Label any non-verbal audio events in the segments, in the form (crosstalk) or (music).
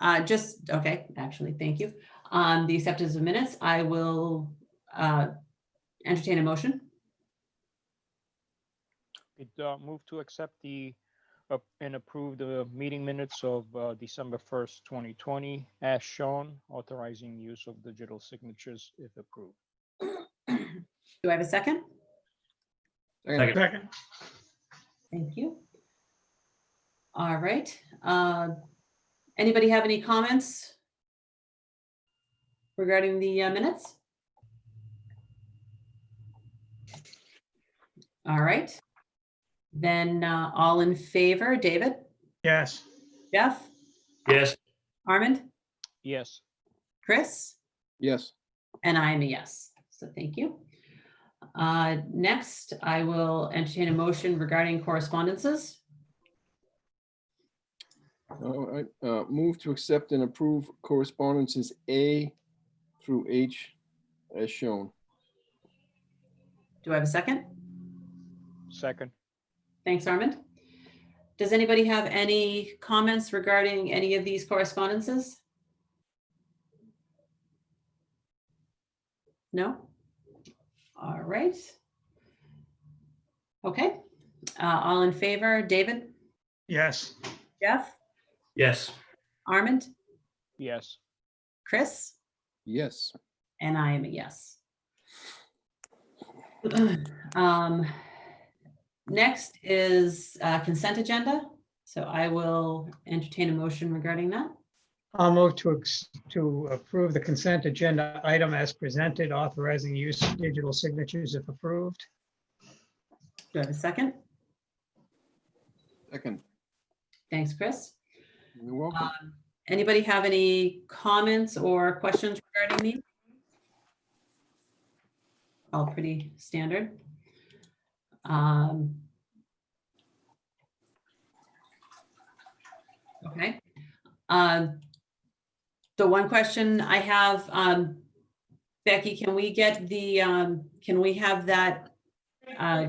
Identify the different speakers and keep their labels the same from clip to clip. Speaker 1: Uh, just, okay, actually, thank you. On the acceptance of minutes, I will, uh, entertain a motion.
Speaker 2: It uh, moved to accept the uh, and approve the meeting minutes of uh, December 1st, 2020, as shown, authorizing use of digital signatures if approved.
Speaker 1: Do I have a second?
Speaker 3: Second.
Speaker 4: Second.
Speaker 1: Thank you. All right, uh, anybody have any comments regarding the uh, minutes? All right, then, uh, all in favor, David,
Speaker 4: Yes.
Speaker 1: Jeff,
Speaker 3: Yes,
Speaker 1: Armand,
Speaker 2: Yes,
Speaker 1: Chris?
Speaker 5: Yes,
Speaker 1: And I am a yes, so thank you. Uh, Next, I will entertain a motion regarding correspondences.
Speaker 5: all right, uh, move to accept and approve correspondences A through H as shown.
Speaker 1: Do I have a second?
Speaker 2: second,
Speaker 1: Thanks, Armand. Does anybody have any comments regarding any of these correspondences? No? All right. Okay, Uh, all in favor, David,
Speaker 4: Yes.
Speaker 1: Jeff,
Speaker 3: yes,
Speaker 1: Armand,
Speaker 2: yes,
Speaker 1: Chris?
Speaker 5: Yes,
Speaker 1: And I am a yes. (clears throat) Um, Next is uh, consent agenda, so I will entertain a motion regarding that.
Speaker 4: I'll move to, ex- to approve the consent agenda item as presented, authorizing use of digital signatures if approved.
Speaker 1: Do I have a second?
Speaker 5: second,
Speaker 1: Thanks, Chris.
Speaker 5: you're welcome.
Speaker 1: Anybody have any comments or questions regarding these? All pretty standard. Um, Okay. Um, The one question I have, um, Becky, can we get the, um, can we have that? uh,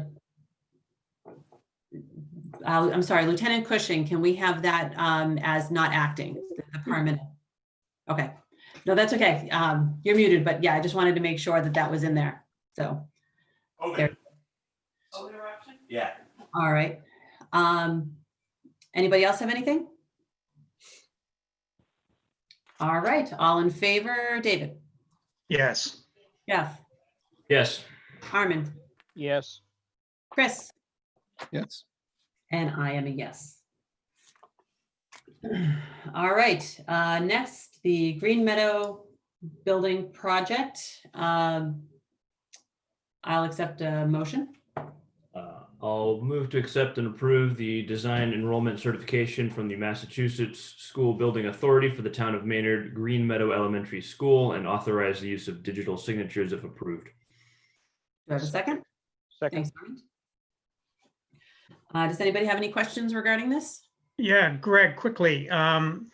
Speaker 1: uh, I'm sorry, Lieutenant Cushing, can we have that um, as not acting, the- the permanent? Okay, no, that's okay. Um, You're muted, but yeah, I just wanted to make sure that that was in there. So,
Speaker 6: Okay.
Speaker 1: There.
Speaker 6: Other option? Yeah.
Speaker 1: all right. Um, Anybody else have anything? All right, all in favor, David,
Speaker 4: Yes.
Speaker 1: Jeff,
Speaker 3: yes,
Speaker 1: Armin,
Speaker 2: yes,
Speaker 1: Chris?
Speaker 5: Yes,
Speaker 1: And I am a yes. (clears throat) All right, uh, next, the Green Meadow Building Project. Um, I'll accept a motion.
Speaker 3: Uh, I'll move to accept and approve the design enrollment certification from the Massachusetts School Building Authority for the town of Maynard Green Meadow Elementary School and authorize the use of digital signatures if approved.
Speaker 1: Do I have a second?
Speaker 2: second,
Speaker 1: Thanks. Armand. Uh, Does anybody have any questions regarding this?
Speaker 4: Yeah, Greg, quickly, um,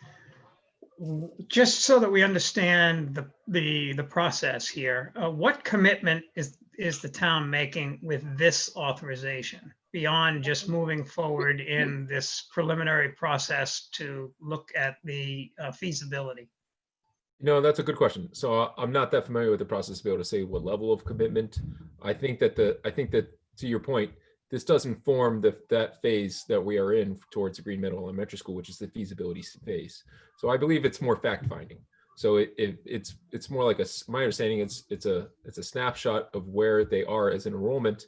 Speaker 4: w- just so that we understand the, the, the process here, uh, what commitment is, is the town making with this authorization? Beyond just moving forward in this preliminary process to look at the uh, feasibility?
Speaker 7: No, that's a good question. So I- I'm not that familiar with the process to be able to say what level of commitment. I think that the, I think that, to your point, this does inform the, that phase that we are in towards the Green Meadow Elementary School, which is the feasibility s- phase. So I believe it's more fact finding. So it, it, it's, it's more like a, s- my understanding, it's, it's a, it's a snapshot of where they are as an enrollment.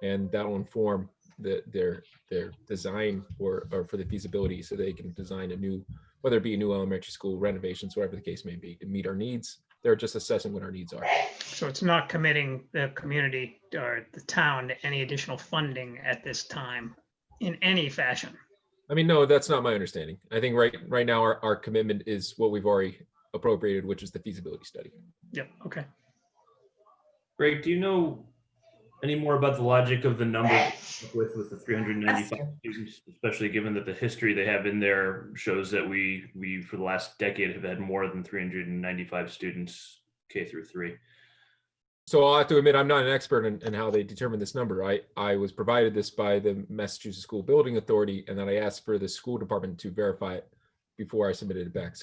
Speaker 7: And that'll inform the, their, their design or, or for the feasibility, so they can design a new whether it be a new elementary school renovations, whatever the case may be, to meet our needs. They're just assessing what our needs are.
Speaker 4: So it's not committing the community or the town to any additional funding at this time in any fashion.
Speaker 7: I mean, no, that's not my understanding. I think right, right now, our, our commitment is what we've already appropriated, which is the feasibility study.
Speaker 4: Yep, okay.
Speaker 3: Greg, do you know any more about the logic of the number with, with the 395 students, especially given that the history they have in there shows that we, we, for the last decade, have had more than 395 students K through three?
Speaker 7: So I'll have to admit, I'm not an expert in, in how they determine this number. I, I was provided this by the Massachusetts School Building Authority, and then I asked for the school department to verify it before I submitted it back. So